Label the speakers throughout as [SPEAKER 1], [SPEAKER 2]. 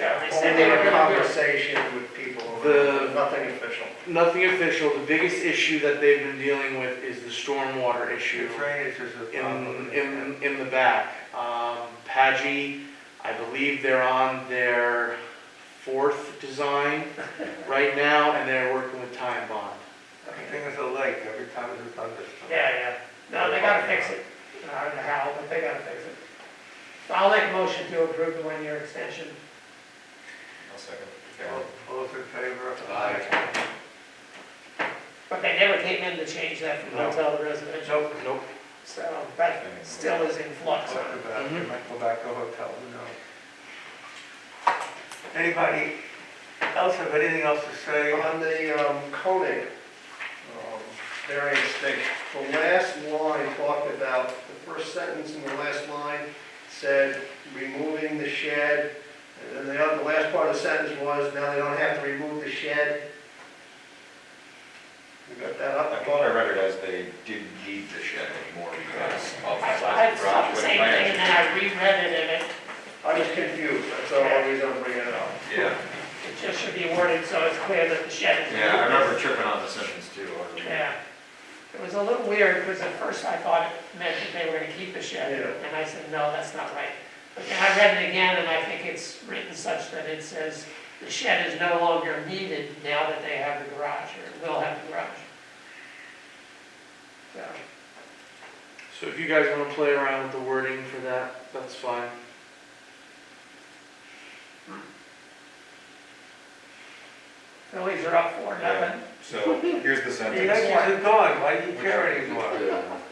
[SPEAKER 1] And they had conversation with people,
[SPEAKER 2] The-
[SPEAKER 1] nothing official.
[SPEAKER 2] Nothing official, the biggest issue that they've been dealing with is the stormwater issue
[SPEAKER 1] Drainage is a
[SPEAKER 2] in,
[SPEAKER 1] problem.
[SPEAKER 2] in, in the back. Um, Pagy, I believe they're on their fourth design right now, and they're working with Time Bond.
[SPEAKER 1] Everything is a lake, every time it's a thunderstorm.
[SPEAKER 3] Yeah, yeah, no, they gotta fix it, I don't know how, but they gotta fix it. So I'll make a motion to approve the one-year extension.
[SPEAKER 4] I'll second.
[SPEAKER 1] All all those in favor?
[SPEAKER 4] Aye.
[SPEAKER 3] But they never came in to change that from
[SPEAKER 2] No.
[SPEAKER 3] hotel to residential,
[SPEAKER 1] Nope.
[SPEAKER 2] Nope.
[SPEAKER 3] so that still is in flux.
[SPEAKER 1] Talk about it,
[SPEAKER 2] Mhm.
[SPEAKER 1] you might go back to a hotel, who knows? Anybody else have anything else to
[SPEAKER 2] Oh,
[SPEAKER 1] say? Uh,
[SPEAKER 5] On the um, Koenig um, variance thing, the last line talked about, the first sentence in the last line said, removing the shed, and then the other- the last part of the sentence was, now they don't have to remove the shed. You got that up?
[SPEAKER 4] I thought I read it as they didn't need the shed anymore because of the
[SPEAKER 3] I I
[SPEAKER 4] size of the
[SPEAKER 3] saw
[SPEAKER 4] garage.
[SPEAKER 3] the
[SPEAKER 4] with
[SPEAKER 3] same thing, and then
[SPEAKER 4] plans.
[SPEAKER 3] I reread it, and it,
[SPEAKER 5] I was confused, that's all I was gonna bring it up.
[SPEAKER 4] Yeah,
[SPEAKER 3] it just should be worded so it's clear that the shed is.
[SPEAKER 4] yeah, I remember tripping on the sentence too. I remember.
[SPEAKER 3] Yeah. It was a little weird, because at first I thought it meant that they were gonna keep the shed,
[SPEAKER 5] Yeah.
[SPEAKER 3] and I said, no, that's not right. But then I read it again, and I think it's written such that it says, the shed is no longer needed now that they have the garage, or will have the garage. So,
[SPEAKER 2] So if you guys wanna play around with the wording for that, that's fine.
[SPEAKER 3] Phillies are up four, nothing.
[SPEAKER 4] So here's the
[SPEAKER 1] The
[SPEAKER 4] sentence.
[SPEAKER 1] Yankees are gone, why do you care anymore?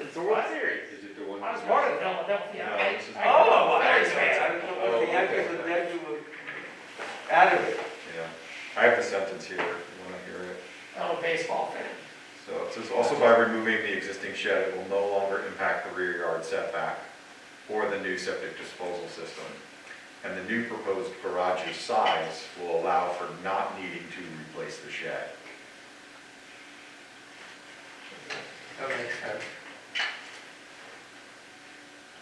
[SPEAKER 2] It's the World Series.
[SPEAKER 4] Is it the one?
[SPEAKER 3] I was born in Philadelphia.
[SPEAKER 4] No,
[SPEAKER 3] I-
[SPEAKER 4] this is-
[SPEAKER 3] I-
[SPEAKER 1] Oh, I
[SPEAKER 3] Phillies
[SPEAKER 1] understand,
[SPEAKER 3] fan.
[SPEAKER 1] I don't
[SPEAKER 2] Oh,
[SPEAKER 1] know if the Yankees are dead, you were out of it.
[SPEAKER 4] Yeah, I have the sentence here, if you wanna hear it.
[SPEAKER 3] I'm a baseball fan.
[SPEAKER 4] So it says, also by removing the existing shed, it will no longer impact the rear yard setback or the new septic disposal system. And the new proposed garage's size will allow for not needing to replace the shed.
[SPEAKER 1] That makes sense.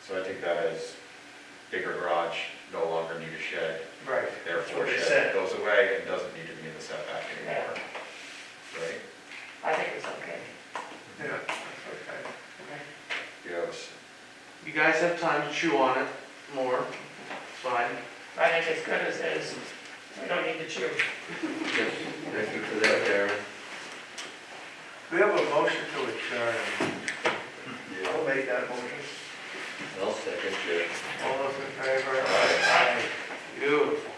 [SPEAKER 4] So I think that is bigger garage, no longer need a shed,
[SPEAKER 1] Right.
[SPEAKER 4] therefore
[SPEAKER 5] That's what they
[SPEAKER 4] shed
[SPEAKER 5] said.
[SPEAKER 4] goes away and doesn't need to be in the setback anymore. Right?
[SPEAKER 3] I think it's okay.
[SPEAKER 1] Yeah, that's okay.
[SPEAKER 4] You have, a s-
[SPEAKER 2] You guys have time to chew on it more, it's fine.
[SPEAKER 3] I think it's good as is. We don't need to chew.
[SPEAKER 6] Thank you for that, Darren.
[SPEAKER 1] We have a motion to adjourn.
[SPEAKER 5] I'll make that motion.
[SPEAKER 6] I'll second it.
[SPEAKER 1] All those in favor?
[SPEAKER 4] Aye.
[SPEAKER 1] Aye.
[SPEAKER 2] Beautiful.